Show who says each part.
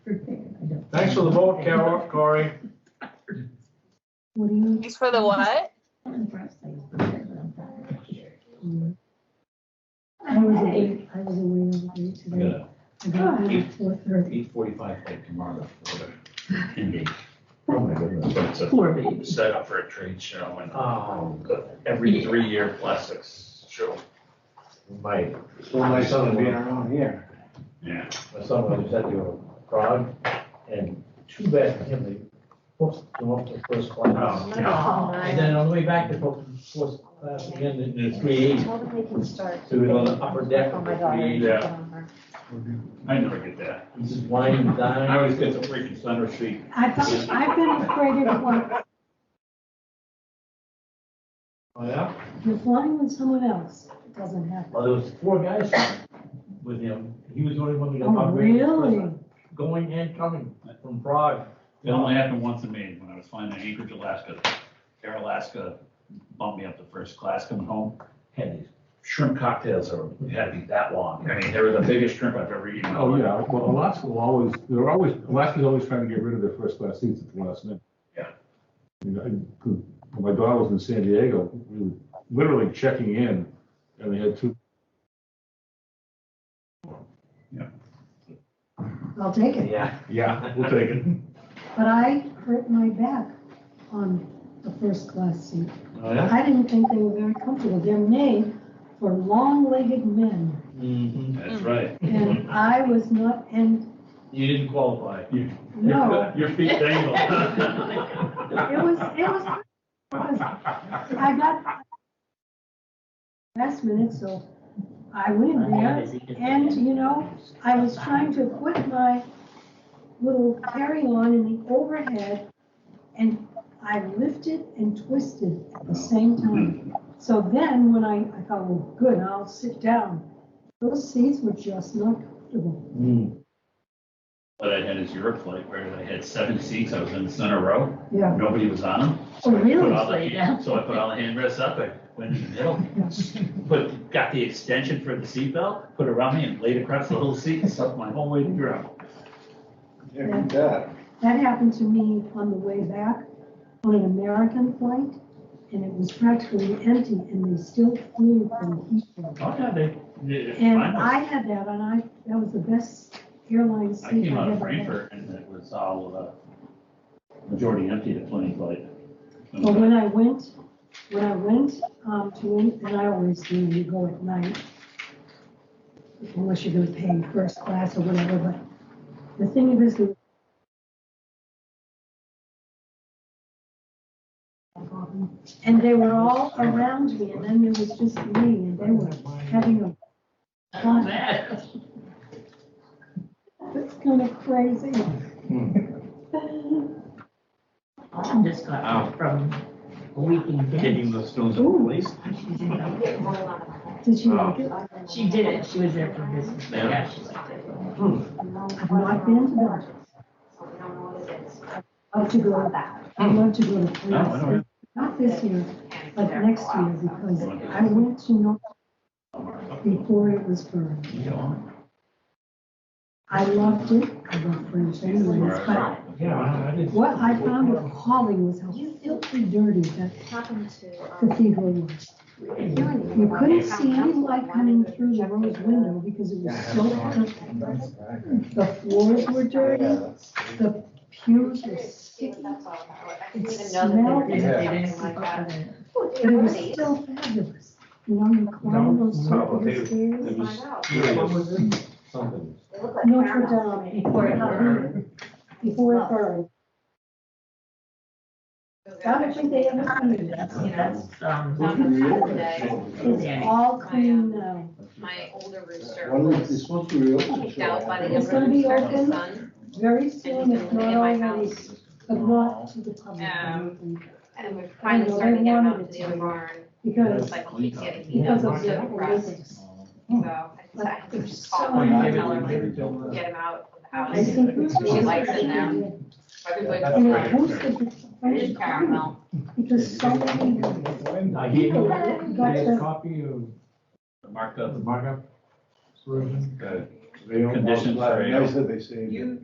Speaker 1: Thanks for the vote, Carol, Corey.
Speaker 2: What do you?
Speaker 3: Thanks for the what?
Speaker 2: I was away, I was away all day
Speaker 4: We
Speaker 2: today.
Speaker 4: got
Speaker 2: I got home at four
Speaker 4: a
Speaker 2: thirty.
Speaker 4: eight forty-five flight tomorrow for Indy.
Speaker 5: Oh, my goodness.
Speaker 4: It's a
Speaker 5: Poor baby.
Speaker 4: set up for a trade show and Ah.
Speaker 1: Oh,
Speaker 4: every three-year plastics show.
Speaker 5: My,
Speaker 1: so my son will be around here.
Speaker 4: Yeah.
Speaker 5: my son was at the Prague, and too bad for him, they booked him up to first class.
Speaker 4: Oh, yeah.
Speaker 5: And then on the way back, they booked him to first class again, in the three eighty,
Speaker 6: Tell them they can start.
Speaker 5: so we were on the upper deck
Speaker 6: Oh,
Speaker 5: of
Speaker 6: my
Speaker 5: the
Speaker 6: God.
Speaker 5: three E. eighty.
Speaker 4: Yeah. I never get that.
Speaker 5: He's just winding and
Speaker 4: I
Speaker 5: dining.
Speaker 4: always get the freaking thunder sheet.
Speaker 2: I've, I've been afraid of what,
Speaker 1: Oh, yeah?
Speaker 2: you're flying with someone else, it doesn't happen.
Speaker 5: Well, there was four guys with him, he was the only one who got
Speaker 2: Oh,
Speaker 5: upgraded.
Speaker 2: really?
Speaker 5: Going and coming from Prague.
Speaker 4: It only happened once in Maine when I was flying to Anchorage, Alaska. Air Alaska bumped me up to first class coming home. Had these shrimp cocktails that were- had to be that long. I mean, they were the biggest shrimp I've ever eaten.
Speaker 7: Oh, yeah, well, Alaska will always, they're always, Alaska's always trying to get rid of their first class seats at the last minute.
Speaker 4: Yeah.
Speaker 7: You know, and, 'cause when my daughter was in San Diego, we were literally checking in, and they had two,
Speaker 2: I'll take it.
Speaker 5: Yeah.
Speaker 7: yeah, we'll take it.
Speaker 2: But I hurt my back on the first class seat.
Speaker 5: Oh, yeah?
Speaker 2: I didn't think they were very comfortable. They're made for long-legged men.
Speaker 5: Mm-hmm.
Speaker 4: That's right.
Speaker 2: And I was not, and
Speaker 5: You didn't qualify.
Speaker 2: no,
Speaker 4: Your feet dangle.
Speaker 2: it was, it was, it was- I got last minute, so I win, yeah. And, you know, I was trying to put my little carry-on in the overhead, and I lifted and twisted at the same time. So then, when I, I thought, well, good, I'll sit down. Those seats were just not comfortable.
Speaker 5: Mm.
Speaker 4: What I had is Europe flight where I had seven seats. I was in the center row.
Speaker 2: Yeah.
Speaker 4: Nobody was on them.
Speaker 2: Oh,
Speaker 4: Put
Speaker 2: really?
Speaker 4: all the
Speaker 6: Lay
Speaker 4: hand- So I put all the handrests up, I went in the middle, put, got the extension for the seatbelt, put it around me and laid across the little seat and stuck my whole way to the ground.
Speaker 1: Yeah, you bet.
Speaker 2: That happened to me on the way back on an American flight, and it was practically empty, and they still flew from Heathrow.
Speaker 4: Oh, yeah, they, they-
Speaker 2: And
Speaker 4: mine was-
Speaker 2: I had that, and I, that was the best airline
Speaker 4: I
Speaker 2: seat
Speaker 4: came
Speaker 2: I
Speaker 4: out of
Speaker 2: ever had.
Speaker 4: Frankfurt and it was all, uh, majority empty at Fleming flight.
Speaker 2: But when I went, when I went, um, to, in- and I always do, you go at night, unless you're gonna pay first class or whatever, but the thing is, the and they were all around me, and then there was just me, and they were having a fun. It's kind of crazy.
Speaker 6: Mom just got back from a week in Denver.
Speaker 5: the stones
Speaker 2: Ooh.
Speaker 5: place.
Speaker 2: Did you like it?
Speaker 6: She did it, she was there for business, but yeah, she liked it.
Speaker 2: Hmm. I've not been to Belgium. I'd love to go, I'd love to go to
Speaker 4: Hmm. No, I don't
Speaker 2: France, not this year, but next year, because I went to North before it was burned.
Speaker 4: You know,
Speaker 2: I loved it, I love French anyways, but
Speaker 5: Yeah, I did.
Speaker 2: what I found appalling was how filthy dirty that
Speaker 8: happened to, um,
Speaker 2: cathedral was. You couldn't see any light coming through the rose window because it was so filthy. The floors were dirty, the pews were sticky. It smelled,
Speaker 6: They
Speaker 2: it
Speaker 6: they didn't cook for the-
Speaker 2: was still fabulous. You know, you climb
Speaker 5: No,
Speaker 2: those
Speaker 5: no,
Speaker 2: circular
Speaker 5: they-
Speaker 2: stairs.
Speaker 5: It was, yeah, what was it? Something.
Speaker 2: Notre Dame, before it burned, before it burned. I don't think they ever cleaned it.
Speaker 6: That's, that's, um,
Speaker 8: On the Saturday,
Speaker 2: It's all clean now.
Speaker 8: my older rooster
Speaker 1: When is
Speaker 8: was
Speaker 1: this supposed to be open?
Speaker 8: kicked out by the
Speaker 2: It's
Speaker 8: younger
Speaker 2: gonna be
Speaker 8: rooster of the
Speaker 2: open.
Speaker 8: sun.
Speaker 2: Very soon, if not already, but not to the public. I don't
Speaker 8: Um,
Speaker 2: think.
Speaker 8: And we're finally starting to get him out to the other barn,
Speaker 2: Because,
Speaker 8: it's like he keeps getting beat
Speaker 2: because
Speaker 8: up, so
Speaker 2: of the
Speaker 8: depressed.
Speaker 2: politics.
Speaker 8: So I just- I had to just call her and tell her, like,
Speaker 1: uh,
Speaker 8: get him out of the
Speaker 2: I
Speaker 8: house.
Speaker 2: think.
Speaker 8: She likes it now.
Speaker 2: You know,
Speaker 8: Everybody,
Speaker 2: who's the French caramel?
Speaker 8: it's caramel.
Speaker 2: Because so many of them.
Speaker 5: I gave you
Speaker 2: Got
Speaker 5: a
Speaker 2: to-
Speaker 5: copy of
Speaker 4: Marked up
Speaker 5: the markup version.
Speaker 4: the
Speaker 1: They don't-
Speaker 4: uh, Conditions for-
Speaker 1: They said they saved it.